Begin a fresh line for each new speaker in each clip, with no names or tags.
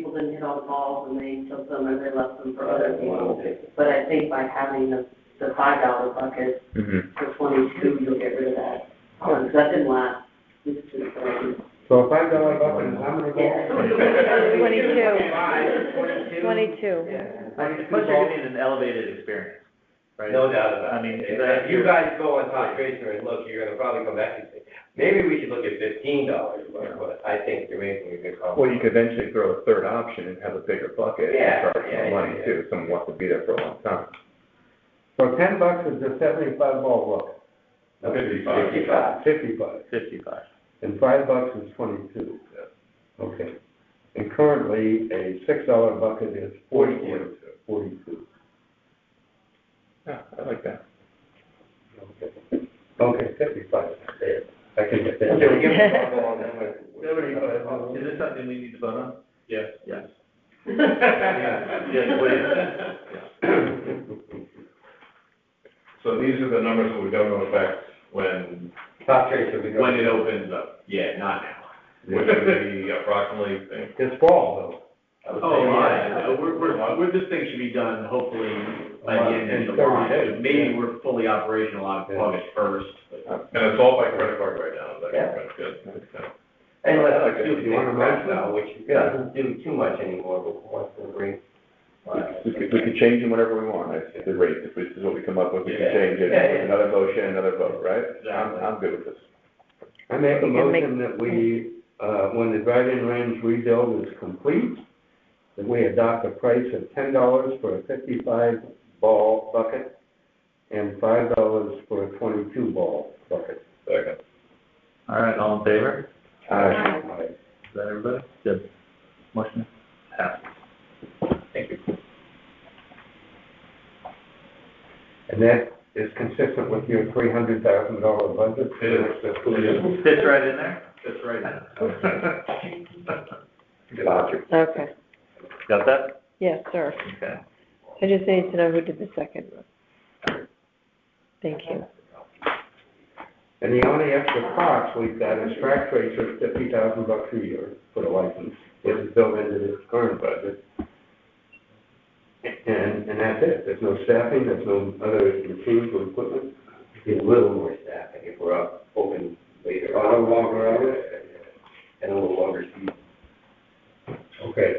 people didn't hit all the balls and they took them and they left them for other people.
Wow.
But I think by having the, the five dollar bucket
Mhm.
Mm-hmm.
for twenty-two, you'll get rid of that. Because that didn't last, it's just, um,
So a five dollar bucket is how many balls?
Twenty-two. Twenty-two.
Plus you're getting an elevated experience, right?
No doubt about it.
I mean,
If
that-
you guys go on top tracer and look, you're gonna probably come back and say, maybe we should look at fifteen dollars, but, but I think you're making a good call.
Well, you could eventually throw a third option and have a bigger bucket
Yeah,
and charge
yeah,
some money
yeah.
too, if someone wants to be there for a long time.
So ten bucks is a seventy-five ball bucket,
Fifty-five. Fifty-five.
fifty-five,
Fifty-five.
and five bucks is twenty-two. Okay. And currently, a six-dollar bucket is forty-two. Forty-two.
Yeah, I like that.
Okay. Okay, fifty-five, there, I can get that.
Okay, we give them a call and then we-
Seventy-five bucks.
Is this something we need to vote on?
Yes.
Yes.
Yeah,
please.
So these are the numbers that would go into effect when,
Top tracer, we go.
when it opens up, yeah, not now, which would be approximately.
It's fall,
I would say,
Oh,
yeah.
yeah, we're, we're, we're, this thing should be done hopefully by the end of
In
July,
30 days,
maybe
yeah.
we're fully operational on
Yeah.
August first. And it's all by credit card right now, that's
Yeah.
good,
And
I
let's
like
do
it.
the
You want a
rest
motion?
now, which
Yeah.
doesn't do too much anymore, but once the rate.
We could, we could change them whenever we want, I see the rate, if this is what we come up with, we can
Yeah.
change it,
Yeah, yeah.
another motion, another vote, right? I'm,
Exactly.
I'm good with this.
though. I make a
You can make-
motion that we, uh, when the drive-in range rebuild is complete, that we adopt a price of ten dollars for a fifty-five ball bucket and five dollars for a twenty-two ball bucket.
Second.
All right, all in favor?
Aye.
Is that everybody? Good. Motion passed.
Thank you.
And that is consistent with your three hundred thousand dollar budget?
It is. It
Fits right in there?
That's right now.
Gotcha.
Okay,
Got that?
yes, sir.
Okay.
I just need to know who did the second. Thank you.
And the only extra cost we've got is track tracers, fifty thousand bucks a year for the license, which is built into this current budget. And, and that's it, there's no staffing, there's no other machines or equipment,
Get a little more staffing if we're up, open later.
A little longer hours?
And a little longer season.
okay.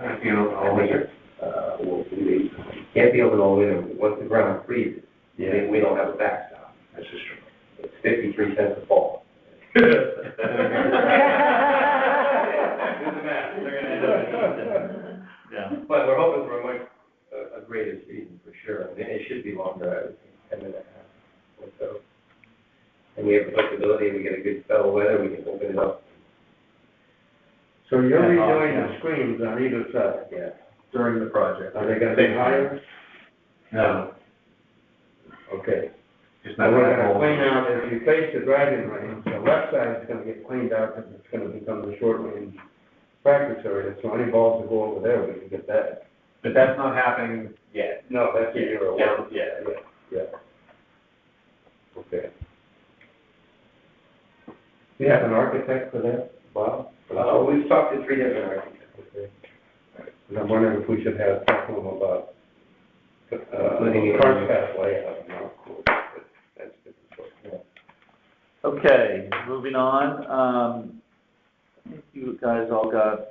If you're all winter, uh, well, we can't be open all winter, once the ground freezes, then we don't have a backstop. That's just true. It's fifty-three cents a ball.
They're gonna end up in Houston. Yeah.
But we're hoping for a much, a, a greater season for sure, and it should be longer, I would think, ten and a half or so. And we have the flexibility, we get a good spell of weather, we can open it up,
So you're
Yeah, oh,
redoing
yeah.
the screens on either side,
yeah.
During the project.
are they gonna be higher?
No.
Okay.
Just
And
not
we're
that
gonna
whole.
clean out, if you face the driving range, the left side's gonna get cleaned out, because it's gonna become the short range practice area, so any balls that go over there, we can get that.
But that's not happening yet.
No, that's a year away.
Yeah.
Yeah. Okay. Do you have an architect for that, Bob?
Uh, we've talked to three different architects.
Okay. And I'm wondering if we should have, talk to him about, uh,
Including you.
card path layout, no, of course, but that's a different story.
Okay, moving on, um, I think you guys all got,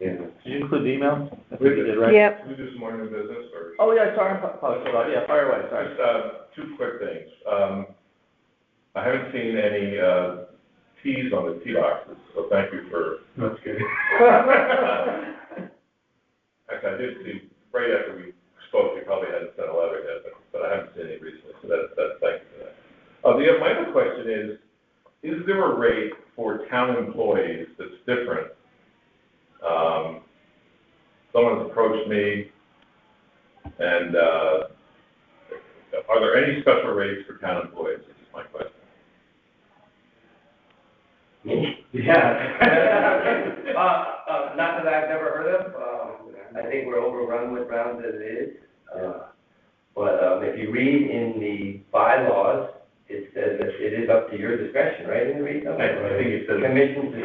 Yeah.
did you include the email? I think you did, right?
Yep,
Can we do some more new business or?
Oh, yeah, sorry, I apologize, yeah, fire away, sorry.
Just, uh, two quick things. Um, I haven't seen any, uh, teas on the tea boxes, so thank you for.
That's good.
Actually, I did see, right after we spoke, you probably hadn't sent a letter yet, but, but I haven't seen any recently, so that's, that's, thank you for that. Uh, the, my other question is, is there a rate for town employees that's different? Um, someone's approached me, and, uh, are there any special rates for town employees, This is my question?
Yeah. Uh, uh, not that I've never heard of, um, I think we're overrun with rounds as it is. Uh, But, um, if you read in the bylaws, it says that it is up to your discretion, right, in the read?
I- I think it says-
Commission's